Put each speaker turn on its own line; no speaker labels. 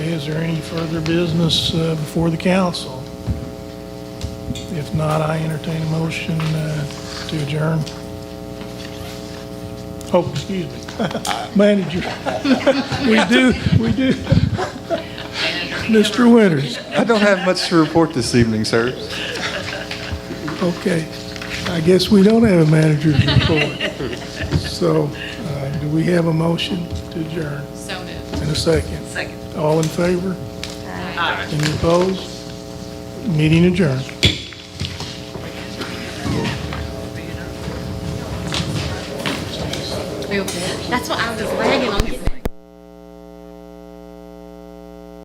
Is there any further business uh, before the council? If not, I entertain a motion uh, to adjourn. Oh, excuse me, manager. We do, we do. Mr. Winters,
I don't have much to report this evening, sir.
okay. I guess we don't have a manager's report. So uh, do we have a motion to adjourn
So moved.
in a second?
Second.
All in favor? Aye. Any opposed? Meeting adjourned.
That's what I was lagging on.